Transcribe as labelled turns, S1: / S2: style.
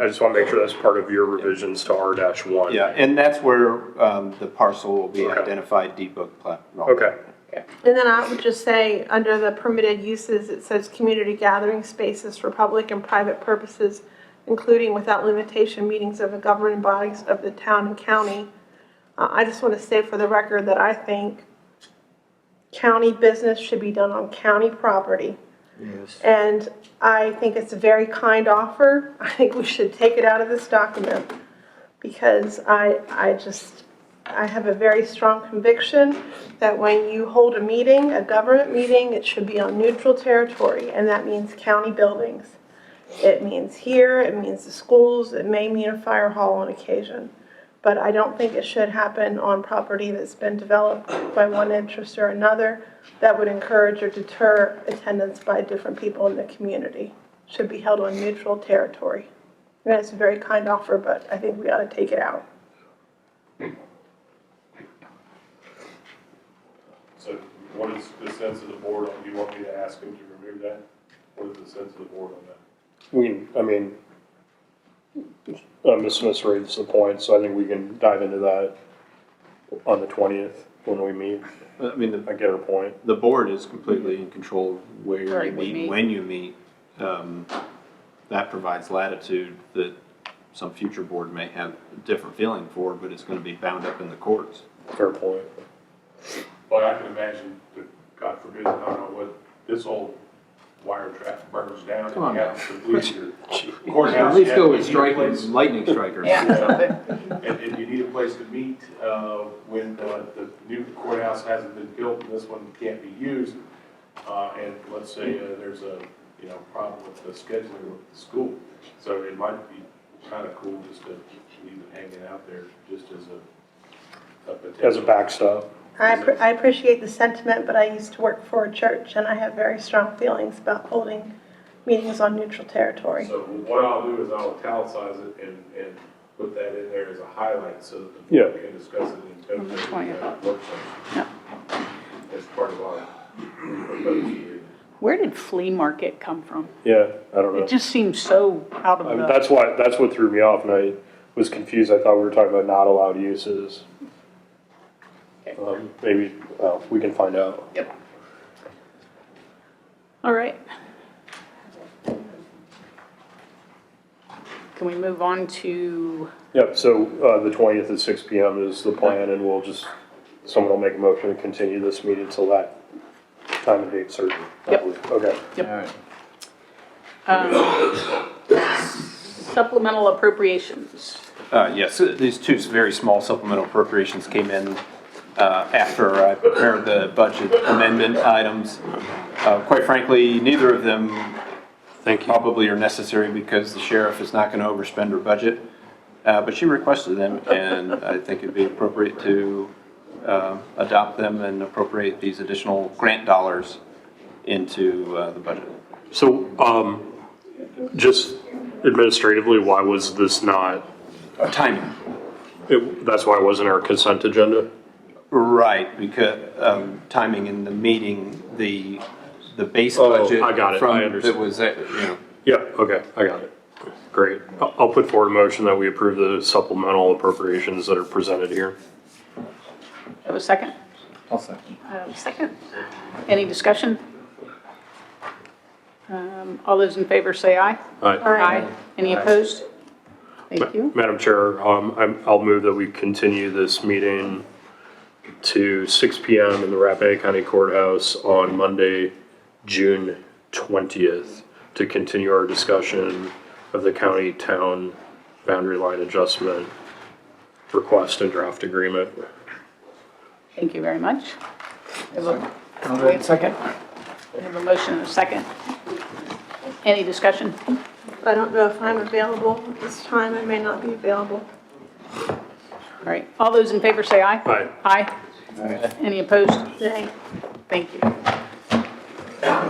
S1: I just want to make sure that's part of your revisions to R dash one.
S2: Yeah, and that's where um, the parcel will be
S1: Okay.
S2: identified, D-book plat.
S1: Okay,
S3: And then I would just say, under the permitted uses, it says community gathering spaces for public and private purposes, including without limitation meetings of the governing bodies of the town and county. Uh, I just want to say for the record that I think county business should be done on county property.
S4: Yes.
S3: And I think it's a very kind offer. I think we should take it out of this document because I, I just, I have a very strong conviction that when you hold a meeting, a government meeting, it should be on neutral territory, and that means county buildings. It means here, it means the schools, it may mean a fire hall on occasion. But I don't think it should happen on property that's been developed by one interest or another that would encourage or deter attendance by different people in the community. Should be held on neutral territory. And it's a very kind offer, but I think we ought to take it out.
S5: So what is the sense of the board, on- do you want me to ask him to remove that? What is the sense of the board on that?
S1: we, can- I mean, uh, Ms. Smith raised the point, so I think we can dive into that on the twentieth when we meet.
S2: I mean, the
S1: I get her point.
S2: the board is completely in control of where you
S6: Right, we
S2: meet,
S6: meet.
S2: when you meet. Um, That provides latitude that some future board may have a different feeling for, but it's gonna be bound up in the courts.
S1: Fair point.
S5: But I can imagine that, God forbid, I don't know what, this old wire trap burns down.
S2: Come on
S5: and you
S2: now.
S5: have to leave your
S2: At
S5: courthouse,
S2: least
S5: you
S2: go
S5: have-
S2: with
S5: you need a
S2: striking,
S5: place-
S2: lightning strikers.
S6: Yeah.
S5: And, and you need a place to meet, uh, when the, the new courthouse hasn't been built and this one can't be used. Uh, and let's say uh, there's a, you know, problem with the scheduling with the school. So it might be kind of cool just to leave it hanging out there just as a, a potential.
S1: As a backstop,
S3: I, appre- I appreciate the sentiment, but I used to work for a church and I have very strong feelings about holding meetings on neutral territory.
S5: So what I'll do is I'll italicize it and, and put that in there as a highlight so that the
S1: Yeah.
S5: board can discuss it in
S6: On the
S5: terms
S6: 20th.
S5: of work session.
S6: Yeah.
S5: As part of our proposed year.
S6: Where did flea market come from?
S1: yeah, I don't know.
S6: It just seems so out of
S1: I mean,
S6: the,
S1: that's why, that's what threw me off and I was confused. I thought we were talking about not allowed uses. Um, maybe, well, we can find out.
S6: all right. Can we move on to,
S1: Yep, so, uh, the twentieth at six P M is the plan and we'll just, someone will make a motion to continue this meeting till that time and date certain. I
S6: Yep.
S1: believe. Okay.
S6: Yep.
S2: All right.
S6: um, supplemental appropriations?
S2: Uh, Yes, uh, these two very small supplemental appropriations came in uh, after I prepared the budget amendment items. Uh, Quite frankly, neither of them probably are necessary because the sheriff is not going to overspend her budget. Uh, But she requested them, and I think it'd be appropriate to uh, adopt them and appropriate these additional grant dollars into uh, the budget.
S1: So, um, just administratively, why was this not,
S2: Timing.
S1: it, that's why it wasn't our consent agenda?
S2: Right, because um, timing in the meeting, the, the base
S1: Oh,
S2: budget.
S1: I got it.
S2: from-
S1: I understand.
S2: That was, uh, you know,
S1: Yeah, okay, I got it. Great. I'll, I'll put forward a motion that we approve the supplemental appropriations that are presented here.
S6: Have a second? I'll second. Second. Any discussion? Um, All those in favor say aye.
S1: Aye.
S6: Any opposed? Thank you.
S1: Madam Chair, um, I'm, I'll move that we continue this meeting to six P M in the Rappahannock County Courthouse on Monday, June twentieth, to continue our discussion of the county-town boundary line adjustment request and draft agreement.
S6: Thank you very much. We have a- Wait a second. We have a motion and a second. Any discussion?
S3: I don't know if I'm available at this time, I may not be available.
S6: All right, all those in favor say aye.
S1: Aye.
S6: Aye. Any opposed?
S3: Nay.
S6: Thank you.